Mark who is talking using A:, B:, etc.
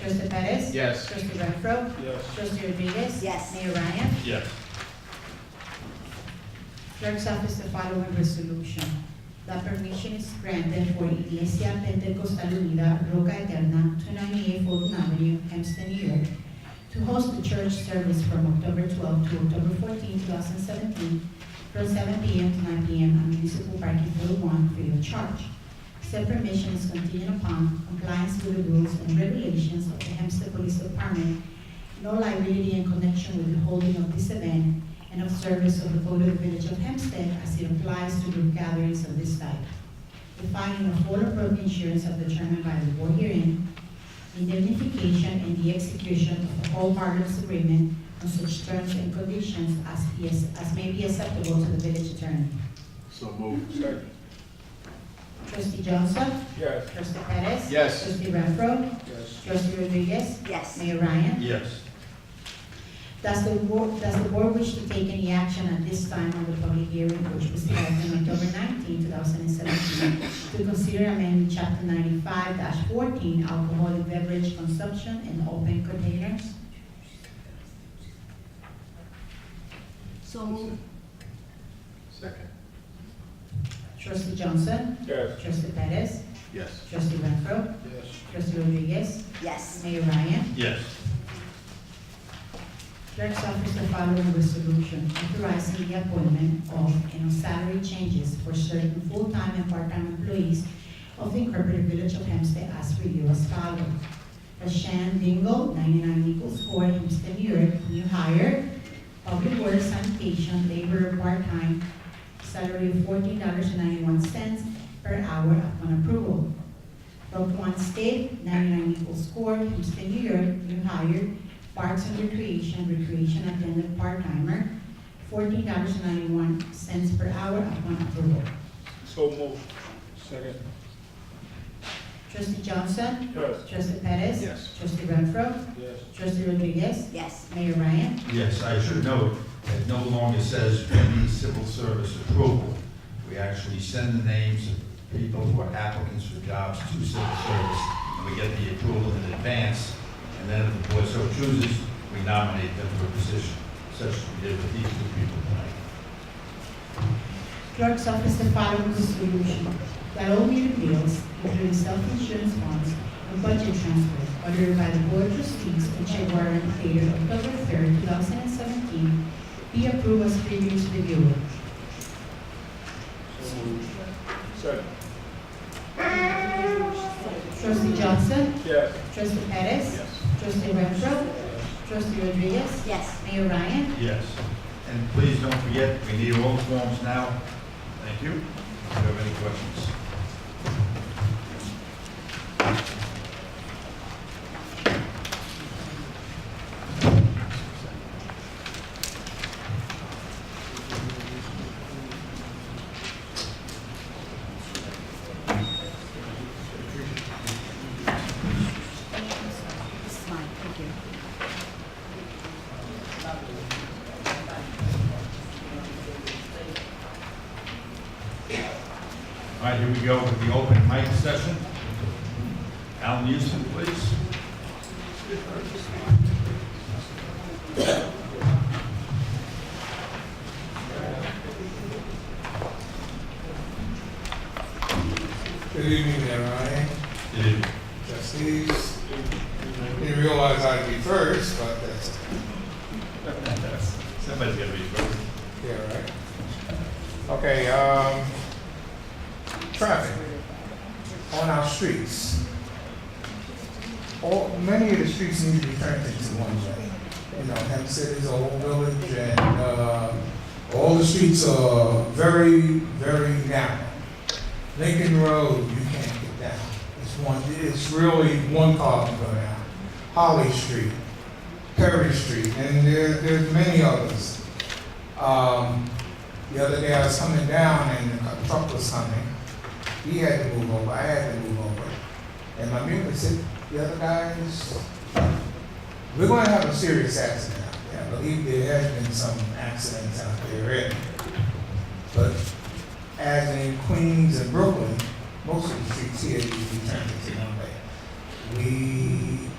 A: Trustee Perez?
B: Yes.
A: Trustee Renfro?
C: Yes.
A: Trustee Rodriguez?
D: Yes.
A: Mayor Ryan?
C: Yes.
A: Clerk's office the following resolution. The permission is granted for Iglesia Pentecostal Unida Roca Eterna, 298 Fulton Avenue, Hempstead, New York, to host the church service from October 12 to October 14, 2017, from 7 p.m. to 9 p.m. on municipal parking floor one free of charge. Said permission is contingent upon compliance with the rules and regulations of the Hempstead Police Department, no liability in connection with the holding of this event, and of service of the code of the village of Hempstead as it applies to group gatherings of this type. The finding of all appropriate insurance are determined by the board herein, indemnification and the execution of the all partners agreement on such terms and conditions as, is- as may be acceptable to the village attorney.
B: So moved.
C: Second.
A: Trustee Johnson?
C: Yes.
A: Trustee Perez?
B: Yes.
A: Trustee Renfro?
C: Yes.
A: Trustee Rodriguez?
D: yes,
A: Mayor Ryan?
C: Yes.
A: Does the board, does the board wish to take any action at this time on the public hearing which was held on October 19, thousand and seventeen, to consider amending chapter ninety-five fourteen alcoholic beverage consumption in open containers?
D: so move,
B: Second.
A: Trustee Johnson?
C: Yes.
A: Trustee Perez?
B: Yes.
A: Trustee Renfro?
C: Yes.
A: Trustee Rodriguez?
D: yes,
A: Mayor Ryan?
C: Yes.
A: Clerk's office the following resolution authorizing the appointment of and on salary changes for certain full-time and part-time employees of the Incorporated Village of Hempstead as reviewed as follows. Rashan Dingle, 99 Nichols Court, Hempstead, New York, new hire, public works sanitation laborer part-time, salary of $14.91 per hour upon approval. Rob One State, 99 Nichols Court, Hempstead, New York, new hire, Parks and Recreation, recreation attendant part-timer, fourteen dollars ninety-one cents per hour upon approval.
C: So moved. Second.
A: Trustee Johnson?
C: Yes.
A: Trustee Perez?
B: Yes.
A: Trustee Renfro?
C: Yes.
A: Trustee Rodriguez?
D: yes,
A: Mayor Ryan?
E: Yes, I should note that no longer says we need civil service approval. We actually send the names of people who are applicants for jobs to civil service, and we get the approval in advance, and then if the board so chooses, we nominate them for a position, such as we did with these two people tonight.
A: Clerk's office the following resolution, that all meter bills, including self-insurance bonds and budget transfers ordered by the Board of Trustees and check warrant dated October third, two thousand and seventeen, be approved as previously reviewed.
C: So moved. Second.
A: Trustee Johnson?
C: Yes.
A: Trustee Perez?
B: Yes.
A: Trustee Renfro, trustee Rodriguez,
D: yes,
A: Mayor Ryan,
E: Yes. And please don't forget, we need all forms now. Thank you. If you have any questions.
D: this is mine, thank you.
E: All right, here we go with the open mic session. Al Newsom, please.
F: Good evening, everybody.
E: Good evening.
F: Trustees, didn't realize I'd be first, but that's,
E: Somebody's got to be first.
F: yeah, right. Okay, um, traffic on our streets. All, many of the streets need to be turned into one way. You know, Hempstead is a whole village and, uh, all the streets are very, very narrow. Lincoln Road, you can't get down. It's one, it's really one car can go down. Holly Street, Perry Street, and there, there's many others. Um, the other day I was coming down and a truck was coming. He had to move over, I had to move over. And my neighbor said, the other guys, we're gonna have a serious accident out there. I believe there has been some accidents out there already. But as in Queens and Brooklyn, most of the streets here, you can turn it to one way. We